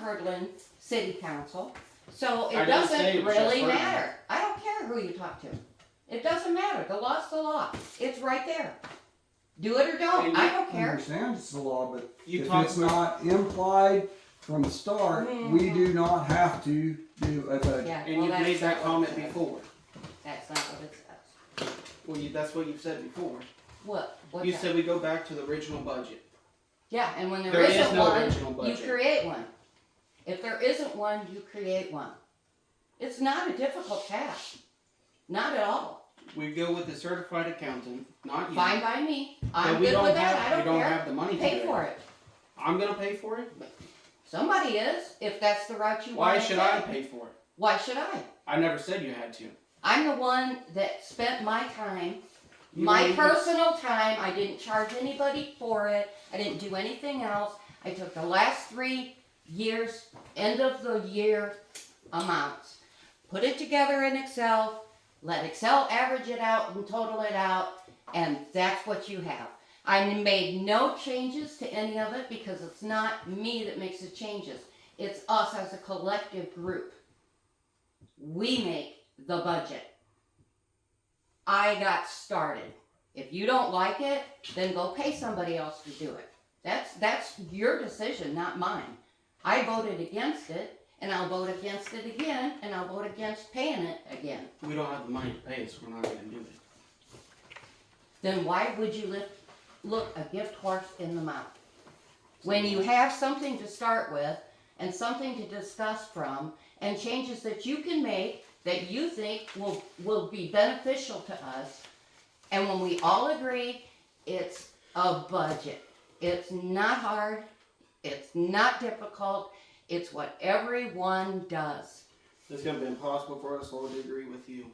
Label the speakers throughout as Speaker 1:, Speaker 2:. Speaker 1: Hurdlin City Council, so
Speaker 2: I
Speaker 1: it
Speaker 2: didn't say
Speaker 1: doesn't
Speaker 2: it was just
Speaker 1: really
Speaker 2: Hurdlin.
Speaker 1: matter. I don't care who you talk to. It doesn't matter. The law's the law. It's right there. Do it or don't.
Speaker 2: And
Speaker 1: I
Speaker 2: you-
Speaker 1: don't
Speaker 3: I
Speaker 1: care.
Speaker 3: understand it's the law, but
Speaker 2: You
Speaker 3: if
Speaker 2: talked
Speaker 3: it's
Speaker 2: about-
Speaker 3: not implied from the start, we do not have to do a budget.
Speaker 1: Yeah,
Speaker 2: And
Speaker 1: well,
Speaker 2: you've
Speaker 1: that's
Speaker 2: made
Speaker 1: not what it
Speaker 2: that comment
Speaker 1: says.
Speaker 2: before.
Speaker 1: That's not what it says.
Speaker 2: Well, you, that's what you've said before.
Speaker 1: What? What's
Speaker 2: You
Speaker 1: that?
Speaker 2: said we go back to the original budget.
Speaker 1: Yeah, and when there
Speaker 2: There is
Speaker 1: isn't
Speaker 2: no
Speaker 1: one,
Speaker 2: original
Speaker 1: you
Speaker 2: budget.
Speaker 1: create one. If there isn't one, you create one. It's not a difficult task. Not at all.
Speaker 2: We go with the certified accountant, not you.
Speaker 1: Fine by me.
Speaker 2: That
Speaker 1: I'm
Speaker 2: we
Speaker 1: good
Speaker 2: don't
Speaker 1: with that.
Speaker 2: have-
Speaker 1: I
Speaker 2: we
Speaker 1: don't
Speaker 2: don't
Speaker 1: care.
Speaker 2: have the money to
Speaker 1: Pay
Speaker 2: do
Speaker 1: for
Speaker 2: it.
Speaker 1: it.
Speaker 2: I'm gonna pay for it, but
Speaker 1: Somebody is, if that's the route you want
Speaker 2: why
Speaker 1: to
Speaker 2: should I pay for it?
Speaker 1: Why should I?
Speaker 2: I never said you had to.
Speaker 1: I'm the one that spent my time,
Speaker 2: You
Speaker 1: my
Speaker 2: don't even-
Speaker 1: personal time. I didn't charge anybody for it. I didn't do anything else. I took the last three years, end of the year amounts, put it together in Excel, let Excel average it out and total it out, and that's what you have. I made no changes to any of it because it's not me that makes the changes. It's us as a collective group. We make the budget. I got started. If you don't like it, then go pay somebody else to do it. That's that's your decision, not mine. I voted against it, and I'll vote against it again, and I'll vote against paying it again.
Speaker 2: We don't have the money to pay, so we're not gonna do it.
Speaker 1: Then why would you lift, look a gift horse in the mouth? When you have something to start with and something to discuss from and changes that you can make that you think will, will be beneficial to us. And when we all agree, it's a budget. It's not hard. It's not difficult. It's what everyone does.
Speaker 2: It's gonna be impossible for us all to agree with you.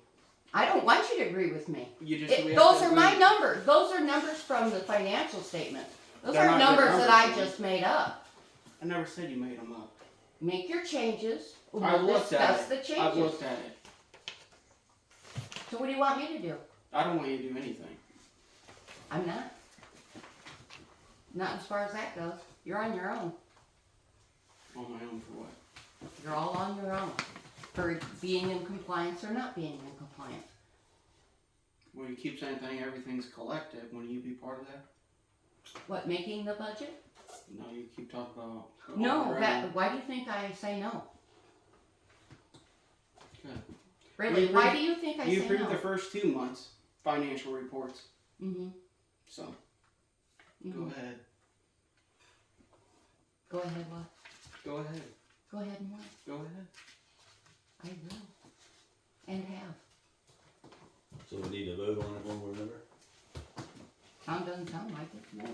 Speaker 1: I don't want you to agree with me.
Speaker 2: You just, we
Speaker 1: It,
Speaker 2: have to
Speaker 1: those are
Speaker 2: agree.
Speaker 1: my numbers. Those are numbers from the financial statement. Those
Speaker 2: They're
Speaker 1: are
Speaker 2: not your
Speaker 1: numbers that I
Speaker 2: numbers,
Speaker 1: just made up.
Speaker 2: I never said you made them up.
Speaker 1: Make your changes.
Speaker 2: I've
Speaker 1: We'll
Speaker 2: looked at it.
Speaker 1: discuss the
Speaker 2: I've
Speaker 1: changes.
Speaker 2: looked at it.
Speaker 1: So what do you want me to do?
Speaker 2: I don't want you to do anything.
Speaker 1: I'm not. Not as far as that goes. You're on your own.
Speaker 2: On my own for what?
Speaker 1: You're all on your own for being in compliance or not being in compliance.
Speaker 2: Well, you keep saying thing, everything's collective. Wouldn't you be part of that?
Speaker 1: What, making the budget?
Speaker 2: No, you keep talking about.
Speaker 1: No,
Speaker 2: Oh, Right.
Speaker 1: that, why do you think I say no?
Speaker 2: Good.
Speaker 1: Really,
Speaker 2: You
Speaker 1: why do
Speaker 2: approved-
Speaker 1: you think I
Speaker 2: You
Speaker 1: say
Speaker 2: approved the
Speaker 1: no?
Speaker 2: first two months financial reports,
Speaker 1: Mhm,
Speaker 2: so go
Speaker 1: mhm.
Speaker 2: ahead,
Speaker 1: Go ahead, what?
Speaker 2: go ahead,
Speaker 1: Go ahead and what?
Speaker 2: go ahead.
Speaker 1: I will. And have.
Speaker 4: So we need to vote on it one way or another?
Speaker 1: Tom doesn't sound like it.
Speaker 3: No.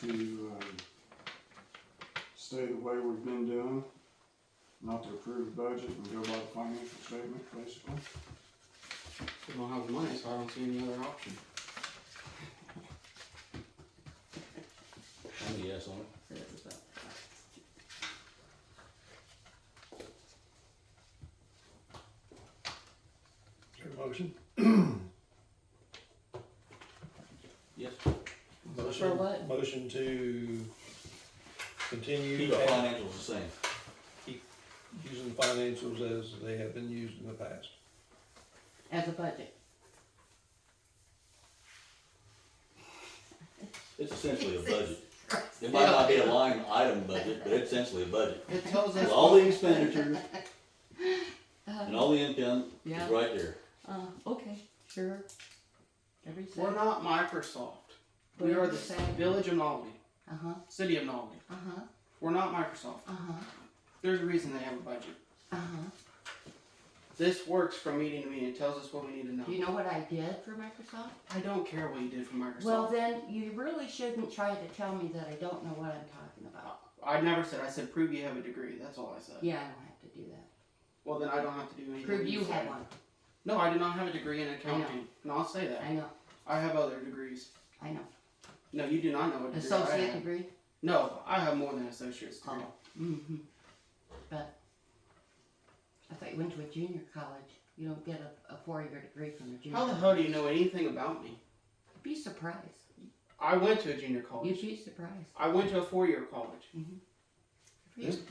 Speaker 3: To, um, stay the way we've been doing, not to approve the budget and go by the financial statement, basically.
Speaker 2: We don't have the money, so I don't see any other option.
Speaker 4: I'm a yes on it.
Speaker 5: Your motion?
Speaker 4: Yes.
Speaker 1: For what?
Speaker 5: Motion to
Speaker 4: Keep
Speaker 5: continue
Speaker 4: the
Speaker 5: at-
Speaker 4: financials the same.
Speaker 5: using financials as they have been used in the past.
Speaker 1: As a budget.
Speaker 4: It's essentially a budget. It might not be a line item budget, but it's essentially a budget.
Speaker 2: It tells
Speaker 4: With
Speaker 2: us
Speaker 4: all
Speaker 2: what,
Speaker 4: the expenditures and all the income
Speaker 1: Yeah.
Speaker 4: is right there.
Speaker 1: Uh-huh. Uh, okay, sure. Every
Speaker 2: we're
Speaker 1: cent.
Speaker 2: not Microsoft. We are the village of Nolly,
Speaker 1: Uh-huh,
Speaker 2: city of Nolly.
Speaker 1: uh-huh,
Speaker 2: We're not Microsoft.
Speaker 1: uh-huh,
Speaker 2: There's a reason they have a budget.
Speaker 1: uh-huh.
Speaker 2: This works from meeting to meeting. It tells us what we need to know.
Speaker 1: Do you know what I did for Microsoft?
Speaker 2: I don't care what you did for Microsoft.
Speaker 1: Well, then, you really shouldn't try to tell me that I don't know what I'm talking about.
Speaker 2: I never said. I said prove you have a degree. That's all I said.
Speaker 1: Yeah, I don't have to do that.
Speaker 2: Well, then I don't have to do anything.
Speaker 1: Prove you
Speaker 2: said.
Speaker 1: have one.
Speaker 2: No, I do not have a degree in accounting, and I'll say that.
Speaker 1: I know,
Speaker 2: I have other degrees.
Speaker 1: I know.
Speaker 2: No, you do not know what degree I
Speaker 1: Associate
Speaker 2: have.
Speaker 1: degree?
Speaker 2: No, I have more than an associate's degree.
Speaker 1: Oh, mm-hmm. But I thought you went to a junior college. You don't get a, a four-year degree from a junior.
Speaker 2: How the hell do you know anything about me?
Speaker 1: You'd be surprised.
Speaker 2: I went to a junior college.
Speaker 1: You'd be surprised.
Speaker 2: I went to a four-year college.
Speaker 1: For you.
Speaker 5: This